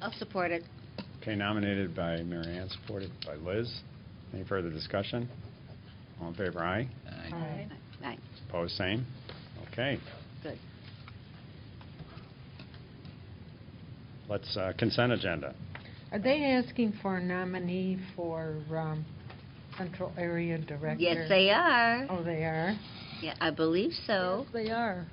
I'll support it. Okay, nominated by Mary Ann, supported by Liz. Any further discussion? All in favor, aye. Aye. Aye, Opposed, same. Okay, good. let's, uh, consent agenda. Are they asking for a nominee for um, Central Area Director? Yes, they are. Oh, they are? Yeah, I believe so. Yes, they are.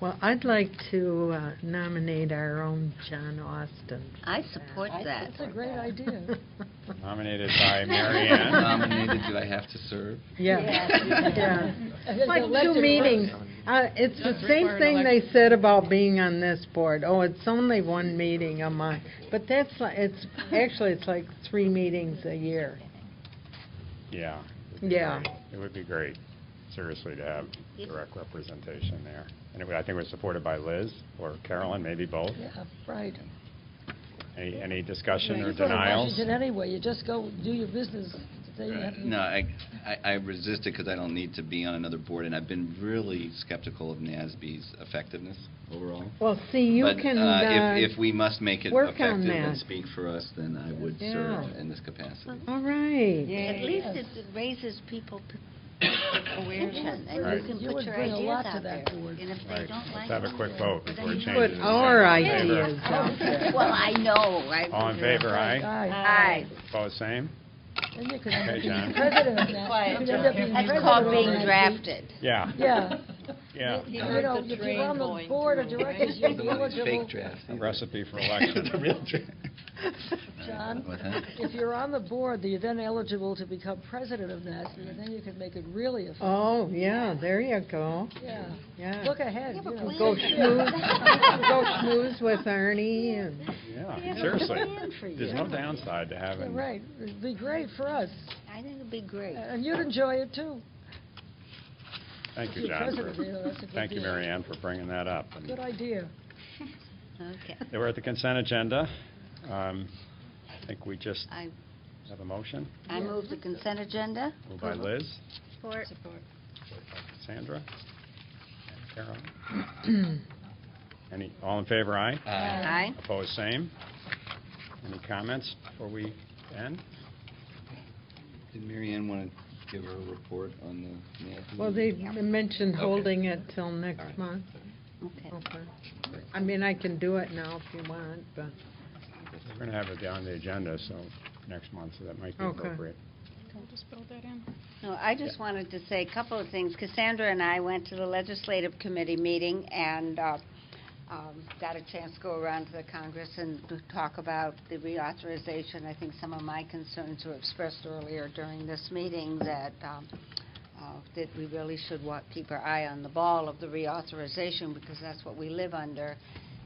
Well, I'd like to uh, nominate our own John Austin. for I that. support that. That's a great idea. Nominated by Mary Ann. Nominated, do I have to serve? Yeah, yeah. As Like two elected meetings. official. Uh, It's the Does same require an thing they election. said about being on this board. Oh, it's only one meeting a month. But that's, li- it's, actually, it's like three meetings a year. Yeah. Yeah. It would be great, seriously, to have Yes. direct representation there. And it- I think it was supported by Liz or Carolyn, maybe both. Yeah, right. Any, any discussion You're or going to denials? Washington anyway, you just go do your business. They have- No, I, I- I resist it because I don't need to be on another board, and I've been really skeptical of NASB's effectiveness overall. Well, see, you But, can, uh, uh, If, if we must make it work on effective and that. speak for us, then I would Yeah. serve in this capacity. all right. At least it Yes. raises people to attention, and Right. you can You put would your bring a ideas lot to out there. that board. And if they Right. don't like Let's have a it, quick then- vote but then before it you- changes. Put in our favor. ideas out there. Well, I know, right? All in favor, aye. Aye. Opposed, same? Then you could end Okay, up being John. president of that. You could end up being That's president called of being that. drafted. Yeah, Yeah. yeah. You heard know, the if train you're on the going board of through, right? directors, you're Those are these eligible, fake drafts. A these are- recipe for election. The real Uh, draft. What's John, that? if you're on the board, then you're then eligible to become president of NASB, and then you can make it really effective. Oh, yeah, there you go, Yeah. yeah. Look ahead, you but know. we- Go schmooze, go schmooze with Arnie and, Yeah, have a seriously. plan for There's you. no downside to Yeah, having. Right, it'd be great for us, I think it'd be great. and you'd enjoy it too. Thank you, You're John. president, you know, that's a for- good Thank you, deal. Mary Ann, for bringing that up. And Good idea. Okay, They were at the consent agenda. Um, I think we just I, have a motion. I move the consent agenda. Moved by Approval. Liz, Support. Sandra, and Carol. Any, all in favor, aye? Aye. Opposed, same. Any comments before we end? Did Mary Ann want to give her a report on the NASB? well, they mentioned Okay. holding it till All next right. month. Okay. Okay. I mean, I can do it now if you want, but, We're going to have it on the agenda, so next month, so that might be Okay. appropriate. We'll just build that in. No, I just wanted to say a couple of things. Cassandra and I went to the legislative committee meeting and uh, um, got a chance to go around to the Congress and to talk about the reauthorization. I think some of my concerns were expressed earlier during this meeting that, um, uh, that we really should wa- keep our eye on the ball of the reauthorization because that's what we live under.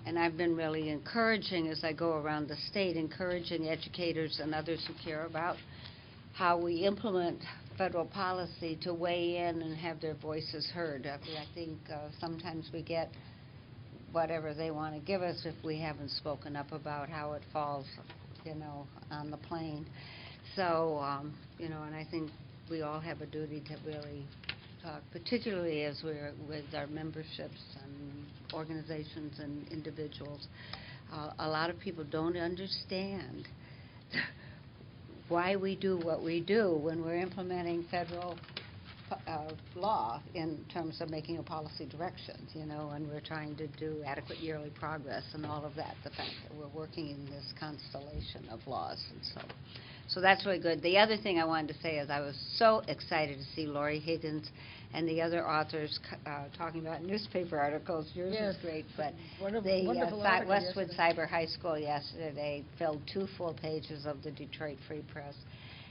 And I've been really encouraging, as I go around the state, encouraging educators and others who care about how we implement federal policy to weigh in and have their voices heard. I mean, I think uh, sometimes we get whatever they want to give us if we haven't spoken up about how it falls, you know, on the plane. So, um, you know, and I think we all have a duty to really talk, particularly as we're with our memberships and organizations and individuals. Uh, A lot of people don't understand why we do what we do when we're implementing federal uh, law in terms of making a policy directions, you know, and we're trying to do adequate yearly progress and all of that, the fact that we're working in this constellation of laws and so. So that's really good. The other thing I wanted to say is I was so excited to see Lori Higgins and the other authors c- uh, talking about newspaper articles. Yours Yes. is great, but Wonderful, the uh, wonderful Cy- article Westwood yesterday. Cyber High School yesterday filled two full pages of the Detroit Free Press.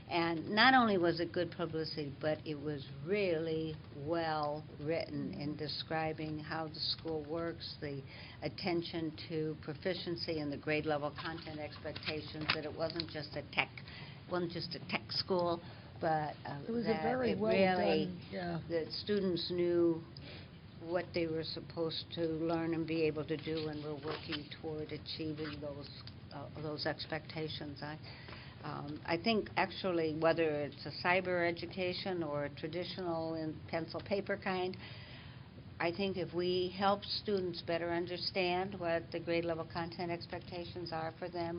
And not only was it good publicity, but it was really well-written in describing how the school works, the attention to proficiency and the grade-level content expectations, that it wasn't just a tech, wasn't just a tech school, but uh, It was a that very it well really done, yeah. that students knew what they were supposed to learn and be able to do, and were working toward achieving those, uh, those expectations. I, um, I think actually, whether it's a cyber education or a traditional in pencil paper kind, I think if we help students better understand what the grade level content expectations are for them